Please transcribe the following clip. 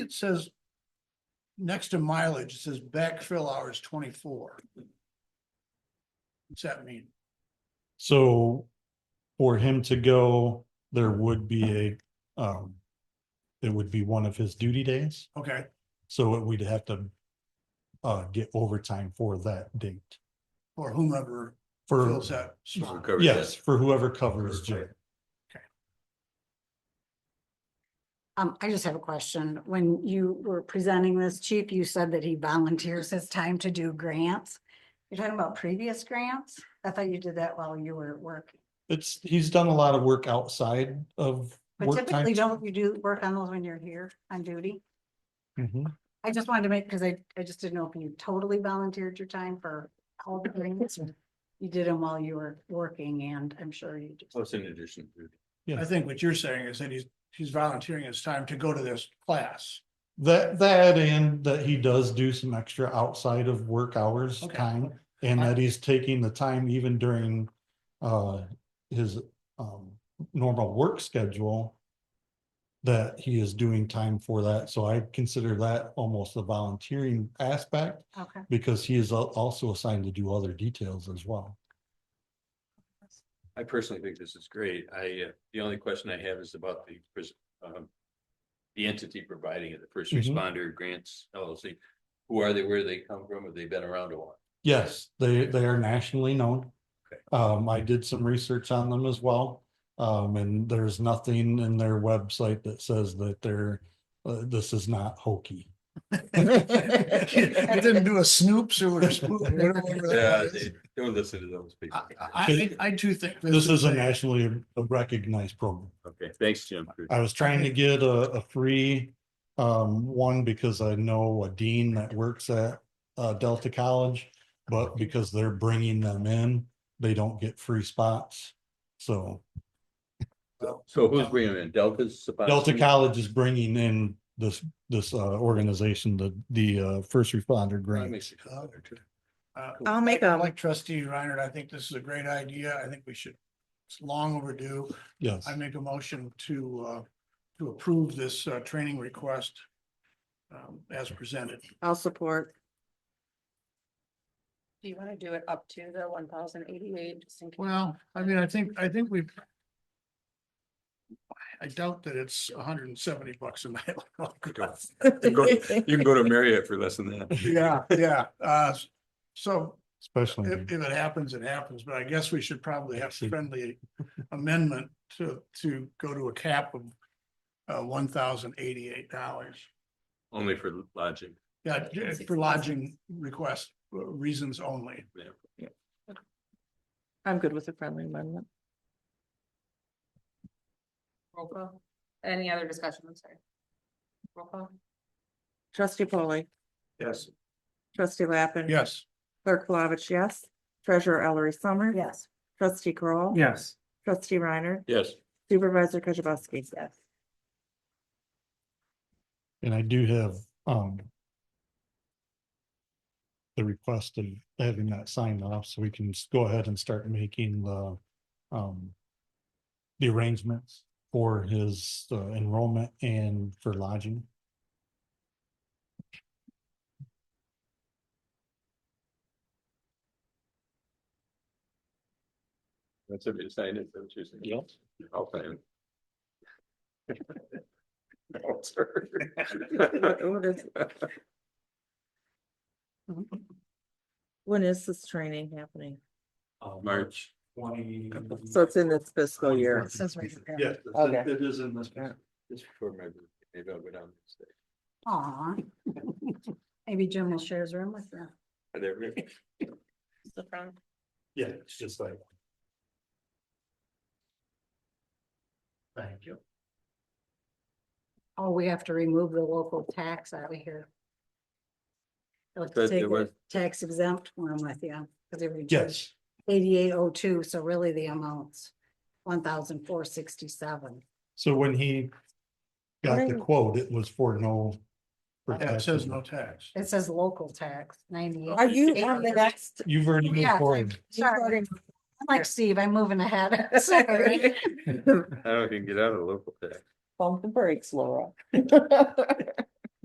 it says next to mileage, it says backfill hours twenty-four. What's that mean? So for him to go, there would be a, um, it would be one of his duty days, Okay, so we'd have to uh, get overtime for that date. or whomever For, fills that spot. Cover yes, that. for whoever covers Jay. Um, I just have a question. When you were presenting this, chief, you said that he volunteers his time to do grants. You're talking about previous grants? I thought you did that while you were at work. It's, he's done a lot of work outside of. But work typically, time. don't you do work on those when you're here on duty? Mhm. I just wanted to make, because I, I just didn't know if you totally volunteered your time for all the grants. or You did them while you were working and I'm sure you just. Oh, Plus in addition to. I think what you're saying is that he's, he's volunteering his time to go to this class. That, that and that he does do some extra outside of work hours Okay. time and I- that he's taking the time even during uh, his um, normal work schedule that he is doing time for that. So I consider that almost a volunteering aspect Okay. because he is al- also assigned to do other details as well. I personally think this is great. I, uh, the only question I have is about the, pres- um. The entity providing it, the first Mhm. responder grants LLC. Who are they? Where do they come from? Have they been around a while? Yes, they, they are nationally known. Okay. Um, I did some research on them as well. Um, and there's nothing in their website that says that they're, uh, this is not hokey. He didn't do a snoops or a spook. or whatever Yeah, that is. they don't listen to those people. I, I, I do think. This is a a- nationally recognized program. Okay, thanks, Jim. I was trying to get a, a free, um, one because I know a dean that works at, uh, Delta College. But because they're bringing them in, they don't get free spots. So So who's bringing in Delta's? Delta Suboxone? College is bringing in this, this, uh, organization, the, the, uh, first responder That grant. makes it better, too. Uh, I'll make a, Like trustee Reiner, I think this is a great idea. I think we should, it's long overdue. Yes. I make a motion to, uh, to approve this, uh, training request um, as presented. I'll support. Do you wanna do it up to the one thousand eighty-eight, just in case? Well, I mean, I think, I think we've I doubt that it's hundred and seventy bucks a night. You can go to Marriott for less than that. Yeah, yeah, uh, so Especially, if, if it happens, it happens, but I guess we should probably have a friendly amendment to, to go to a cap of uh, one thousand eighty-eight dollars. Only for lodging. Yeah, j- for lodging request uh, reasons only. I'm good with a friendly amendment. Roll call. Any other discussion, I'm sorry. Roll call. Trustee polley Yes. trustee Lappin. Yes. Clerk Flavich, yes. Treasurer Ellery Summers. Yes. Trustee Kroll, Yes. Trustee Reiner. Yes. Supervisor Kujabaski. Yes. and I do have, um, the request of having that signed off so we can s- go ahead and start making the, um, the arrangements for his uh, enrollment and for lodging. That's what it signed it, so it's just. Yep. I'll sign it. No, sir. What- what is- When is this training happening? Um, March. Twenty. So it's in this fiscal year. It says right there. Yes, Okay. it is in this. Just for my, maybe I'll go down. and say, Aw. Maybe Jim will share his room with you. "Are there really-" The front. Yeah, it's just like. Thank you. Oh, we have to remove the local tax out of here. Let's But take there was- the tax exempt one with you, because they reduced Yes, eighty-eight oh two, so really the amount's one thousand four sixty-seven. so when he got the Right. quote, it was for no. for Yeah, it says taxes. no tax. It says local tax, ninety-eight. Are you on the next? You've already Oh, yeah, moved it's forward. Sorry, I'm like Steve, I'm moving ahead, sorry. I don't even get out of the local tax. Bump the brakes, Laura.